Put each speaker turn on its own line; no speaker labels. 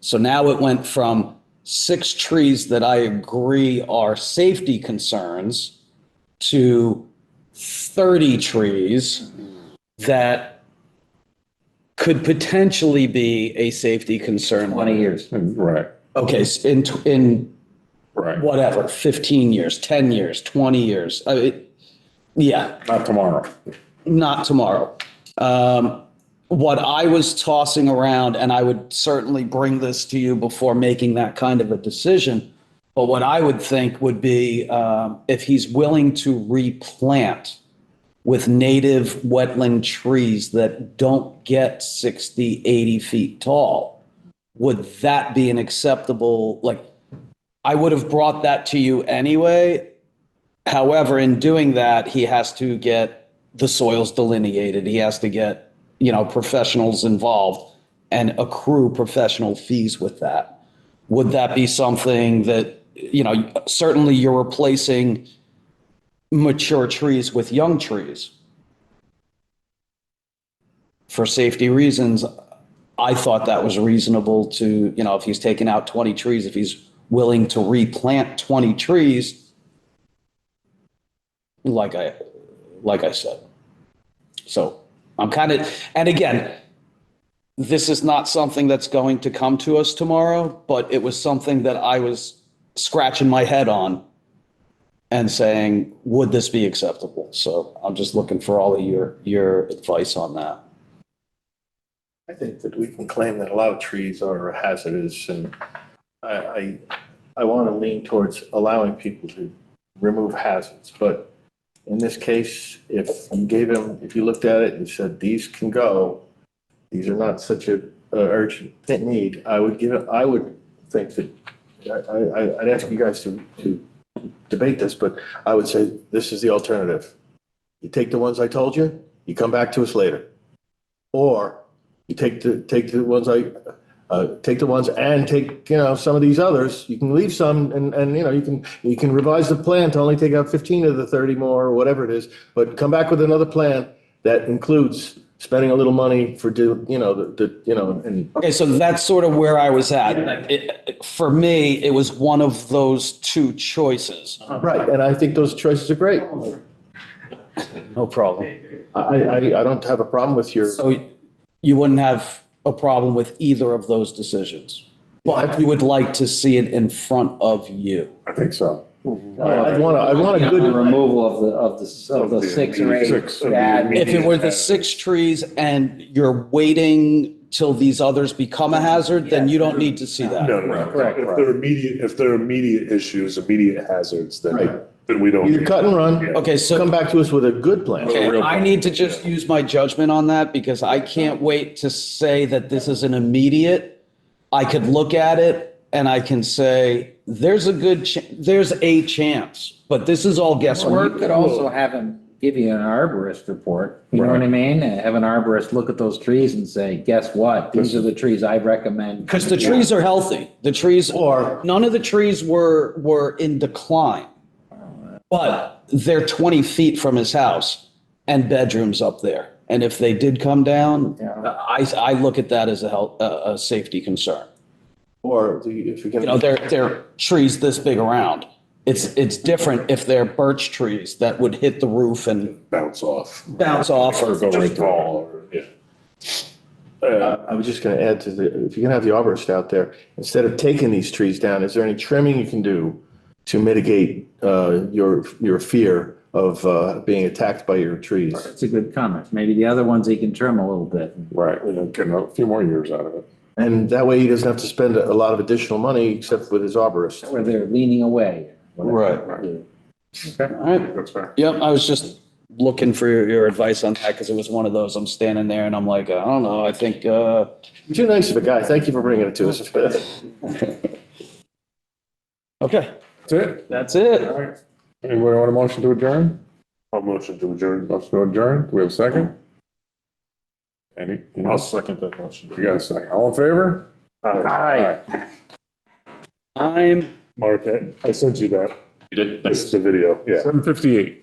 So now it went from six trees that I agree are safety concerns to 30 trees that could potentially be a safety concern.
20 years.
Right,
Okay, s- in, tw- in
right.
whatever, 15 years, 10 years, 20 years. I mean, Yeah,
Not tomorrow.
not tomorrow. Um, what I was tossing around, and I would certainly bring this to you before making that kind of a decision, but what I would think would be um, if he's willing to replant with native wetland trees that don't get 60, 80 feet tall, would that be an acceptable, like, I would have brought that to you anyway. However, in doing that, he has to get the soils delineated. He has to get, you know, professionals involved and accrue professional fees with that. Would that be something that, you know, certainly you're replacing mature trees with young trees? For safety reasons, I thought that was reasonable to, you know, if he's taking out 20 trees, if he's willing to replant 20 trees, like I, like I said. So I'm kind of, and again, this is not something that's going to come to us tomorrow, but it was something that I was scratching my head on and saying, would this be acceptable? So I'm just looking for all of your, your advice on that.
I think that we can claim that a lot of trees are hazardous and I, I, I want to lean towards allowing people to remove hazards, but in this case, if you gave him, if you looked at it and said, these can go, these are not such a a urgent need, I would give it, I would think that, I, I, I'd ask you guys to, to debate this, but I would say this is the alternative. You take the ones I told you, you come back to us later. Or you take the, take the ones I, uh, take the ones and take, you know, some of these others. You can leave some and, and, you know, you can, you can revise the plan to only take out fifteen of the thirty more or whatever it is. But come back with another plan that includes spending a little money for, do you know, the, the, you know, and
Okay, so that's sort of where I was at. It- For me, it was one of those two choices.
Right, and I think those choices are great.
No problem.
I, I, I don't have a problem with your,
So you wouldn't have a problem with either of those decisions? But you would like to see it in front of you.
I think so.
I want to, I want a
The
good,
removal of the, of the, of the six or
Six.
eight bad.
If it were the six trees and you're waiting till these others become a hazard, then you don't need to see that.
No, no, no.
Correct.
If they're immediate, if they're immediate issues, immediate hazards,
Right.
then, then we don't.
either cut and run,
Okay,
come
so
back to us with a good plan.
okay,
real
I need to just use my judgment on that because I can't wait to say that this is an immediate. I could look at it and I can say, there's a good, ch- there's a chance, but this is all
Or
guesswork.
you could also have him give you an arborist report, you know what I mean? And Have an arborist look at those trees and say, guess what? These are the trees I recommend.
Because the trees are healthy. The trees,
Or-
none of the trees were, were in decline. But they're 20 feet from his house and bedrooms up there. And if they did come down, I, I look at that as a health, a, a safety concern.
Or do you- if you're
You know,
gonna,
they're, they're trees this big around. It's, it's different if they're birch trees that would hit the roof and
Bounce off.
bounce off
Or
or
go right fall, or, yeah. Uh,
I was just gonna add to the, if you're gonna have the arborist out there, instead of taking these trees down, is there any trimming you can do to mitigate, uh, your, your fear of, uh, being attacked by your trees?
That's a good comment. Maybe the other ones he can trim a little bit.
Right, we don't get a few more years out of it.
And that way he doesn't have to spend a lot of additional money except with his arborist.
where they're leaning away.
Right. All right.
That's fair.
Yep, I was just looking for your, your advice on that because it was one of those, I'm standing there and I'm like, I don't know, I think, uh,
Too nice of a guy. Thank you for bringing it to us.
okay,
That's it.
that's it.
All right. Anybody want a motion to adjourn? A motion to adjourn, motion to adjourn. Do we have a second? Any? I'll second that motion. You got a second. All in favor? Aye.
I'm
Mark, I- I sent you that. You did? This is the video, yeah. Seven fifty-eight.